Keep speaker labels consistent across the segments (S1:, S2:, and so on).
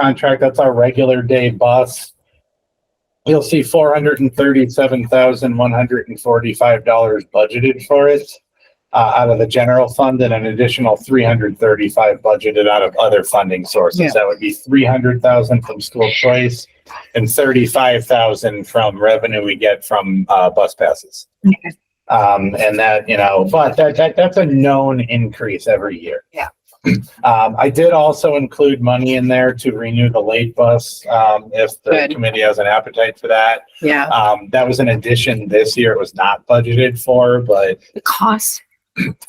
S1: contract, that's our regular day bus. You'll see four hundred and thirty-seven thousand, one hundred and forty-five dollars budgeted for it uh, out of the general fund and an additional three hundred thirty-five budgeted out of other funding
S2: Yeah.
S1: sources. That would be three hundred thousand from school choice and thirty-five thousand from revenue we get from, uh, bus passes.
S2: Okay.
S1: Um, and that, you know, but that, that, that's a known increase every year.
S2: Yeah.
S1: Um, I did also include money in there to renew the late bus, um, if the
S2: Good.
S1: committee has an appetite for that.
S2: Yeah,
S1: Um, that was an addition this year. It was not budgeted for, but
S2: the cost.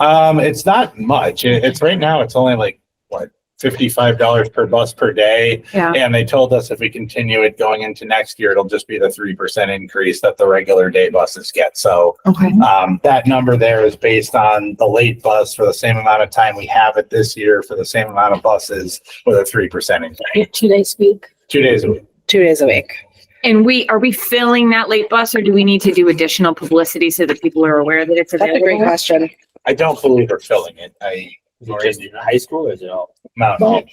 S1: um, it's not much. It- It's right now, it's only like, what, fifty-five dollars per bus per day.
S2: Yeah.
S1: And they told us if we continue it going into next year, it'll just be the three percent increase that the regular day buses get. So
S2: Okay.
S1: um, that number there is based on the late bus for the same amount of time we have it this year for the same amount of buses with a three percent increase,
S3: Two days a week.
S1: two days a week.
S2: Two days a week.
S4: And we, are we filling that late bus or do we need to do additional publicity so that people are aware that it's
S2: That's a great
S4: available?
S2: question.
S1: I don't believe they're filling it. I.
S5: Is it just in high school or is it all?
S1: Mountain.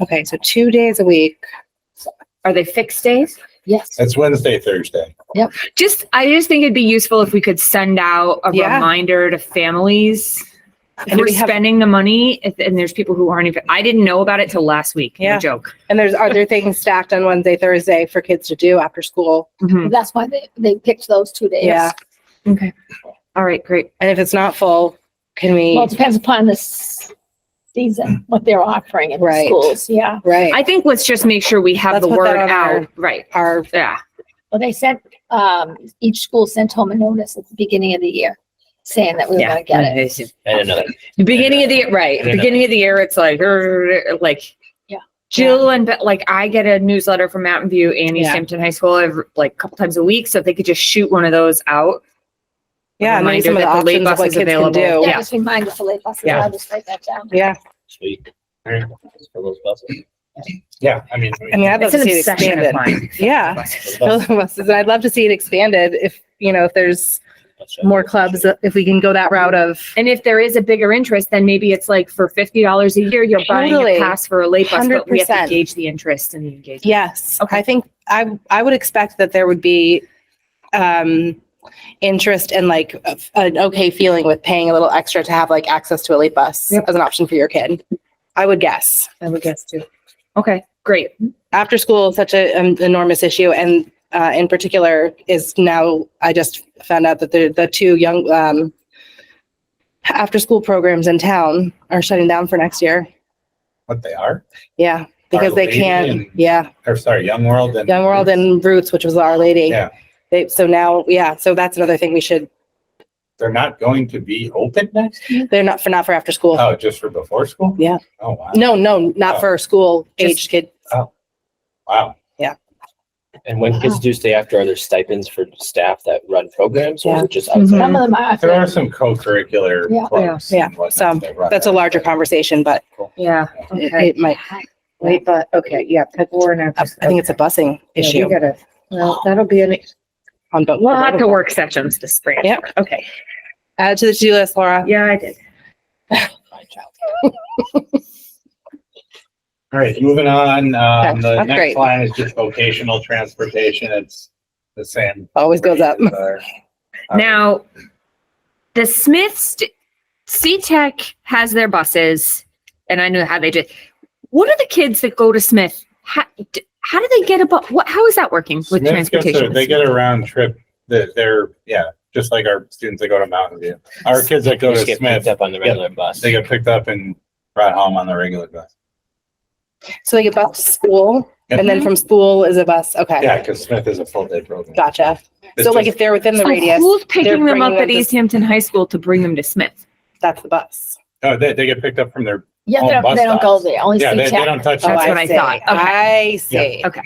S2: Okay, so two days a week.
S4: Are they fixed days?
S3: Yes.
S1: It's Wednesday, Thursday.
S4: Just, I just think it'd be useful if we could send out a
S2: Yeah.
S4: reminder to families. If
S2: And
S4: we're
S2: we have,
S4: spending the money if- and there's people who aren't even, I didn't know about it till last week. No
S2: Yeah.
S4: Joke.
S2: and there's other things stacked on Wednesday, Thursday for kids to do after school.
S1: Hmm.
S4: Mhm.
S3: That's why they, they picked those two days.
S2: Yeah.
S4: Okay. All right, great.
S2: And if it's not full, can
S3: Well,
S2: we,
S3: it depends upon the s- season, what they're offering in the
S2: Right.
S3: schools, yeah.
S2: right,
S4: I think let's just make sure we have
S2: Let's
S4: the
S2: put that
S4: word
S2: on our-
S4: out. Right.
S2: our,
S4: Yeah.
S3: Well, they sent, um, each school sent home a notice at the beginning of the year saying that we were
S4: Yeah.
S3: gonna get it.
S5: And another.
S4: The Beginning of the year, right.
S5: Yeah.
S4: Beginning of the year, it's like, er, like.
S3: Yeah.
S4: Jill and, but like, I get a newsletter from Mountain View and East
S2: Yeah.
S4: Hampton High School every, like, a couple times a week, so if they could just shoot one of those out.
S2: yeah, maybe some of
S4: Reminder
S2: the
S4: that the late
S2: options of
S4: bus
S2: what
S4: is
S2: kids can
S4: available.
S1: Oh,
S2: do.
S3: Yeah,
S4: Yeah.
S3: just remind us the late buses,
S4: Yeah.
S3: I'll just write that down.
S2: Yeah,
S5: Sweet. For those buses.
S1: Yeah, I mean.
S2: I mean, I'd love
S4: It's
S2: to
S4: an
S2: see it
S4: obsession of
S2: expanded.
S4: mine.
S2: Yeah.
S5: Those buses.
S2: And I'd love to see it expanded if, you know, if there's more clubs, if we can go that route of.
S4: And if there is a bigger interest, then maybe it's like for fifty dollars a year, you're buying
S2: Totally.
S4: a pass for a late bus, but we have to
S2: 100%.
S4: gauge the interest and the engagement.
S2: Yes,
S4: Okay.
S2: I think I I would expect that there would be um interest and like a- an okay feeling with paying a little extra to have like access to a late bus
S4: Yep.
S2: as an option for your kid. I would guess.
S4: I would guess too. Okay, great.
S2: After school is such an enormous issue and uh, in particular is now I just found out that the the two young um after school programs in town are shutting down for next year.
S1: What they are,
S2: Yeah, because they
S1: Lady
S2: can't.
S1: and-
S2: Yeah.
S1: or sorry, Young World and.
S2: Young World and Roots, which was Our Lady.
S1: Yeah.
S2: They, so now, yeah, so that's another thing we should,
S1: They're not going to be open next year?
S2: they're not for, not for after school.
S1: Oh, just for before school?
S2: Yeah.
S1: Oh, wow.
S2: No, no, not for school aged kid.
S1: Wow.
S5: And when kids do stay after, are there stipends for staff that run programs or is it just
S4: Mhm.
S5: outside?
S3: Some of them are.
S1: There are some co-curricular
S3: Yeah.
S1: clubs.
S2: Yeah,
S1: and whatnot
S2: some.
S1: that run
S2: That's a
S1: that.
S2: larger conversation, but
S4: Yeah.
S2: it,
S4: Okay.
S2: it might,
S6: Wait, but, okay, yeah, but we're not.
S2: I think it's a busing
S6: Yeah,
S2: issue
S6: we gotta- Well, that'll be an,
S2: on both.
S4: We'll have to work sessions this spring.
S2: Yep.
S4: Okay.
S2: Add to the to-do list, Laura.
S4: Yeah, I did.
S1: All right, moving on, um, the
S2: that's great.
S1: next line is just vocational transportation. It's the same. uh,
S2: Always goes up.
S1: as our-
S4: Now, the Smiths, C Tech has their buses, and I know how they did. What are the kids that go to Smith? How, d- how do they get a bus? What? How is that working with
S1: Smith gets a-
S4: transportation?
S1: They get a round trip, that they're, yeah, just like our students that go to Mountain View. Our kids that go to
S5: Just get
S1: Smith,
S5: picked up on the regular bus.
S1: they get picked up and brought home on the regular bus.
S2: So they get bus to school and then from school is a bus. Okay.
S1: Mm-hmm. Yeah, because Smith is a full-day program.
S2: Gotcha.
S1: It's
S2: So like
S1: just-
S2: if they're within the
S4: So
S2: radius,
S4: Oh, who's
S2: they're
S4: picking them
S2: bringing
S4: up
S2: them
S4: at
S2: to-
S4: East Hampton High School to bring them to Smith?
S2: that's the bus.
S1: Oh, they, they get picked up from their,
S3: Yeah, they
S1: On
S3: don't, they
S1: bus
S3: don't go
S1: stops.
S3: there, only
S1: yeah, they, they
S3: C-Tech.
S1: don't touch.
S2: Oh,
S4: That's
S1: that.
S4: what I
S2: see.
S4: thought.
S2: I see.
S4: Okay.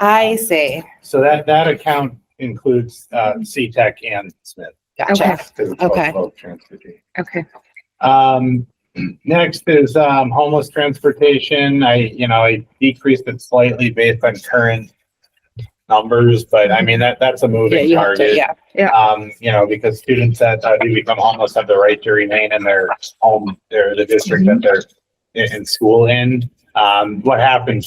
S2: I see.
S1: So that, that account includes, uh, C-Tech and Smith.
S2: Gotcha.
S1: 'cause it's both-
S2: Okay.
S1: both transportation.
S4: Okay.
S1: Um, next is, um, homeless transportation. I, you know, I decreased it slightly based on current numbers, but I mean, that, that's a
S2: Yeah,
S1: moving
S2: you have to,
S1: target.
S2: yeah.
S1: Um, you know, because students that uh, do become homeless
S2: Mm-hmm.
S1: have the right to remain in their home, their, the district that they're in, in school in. Um, what happens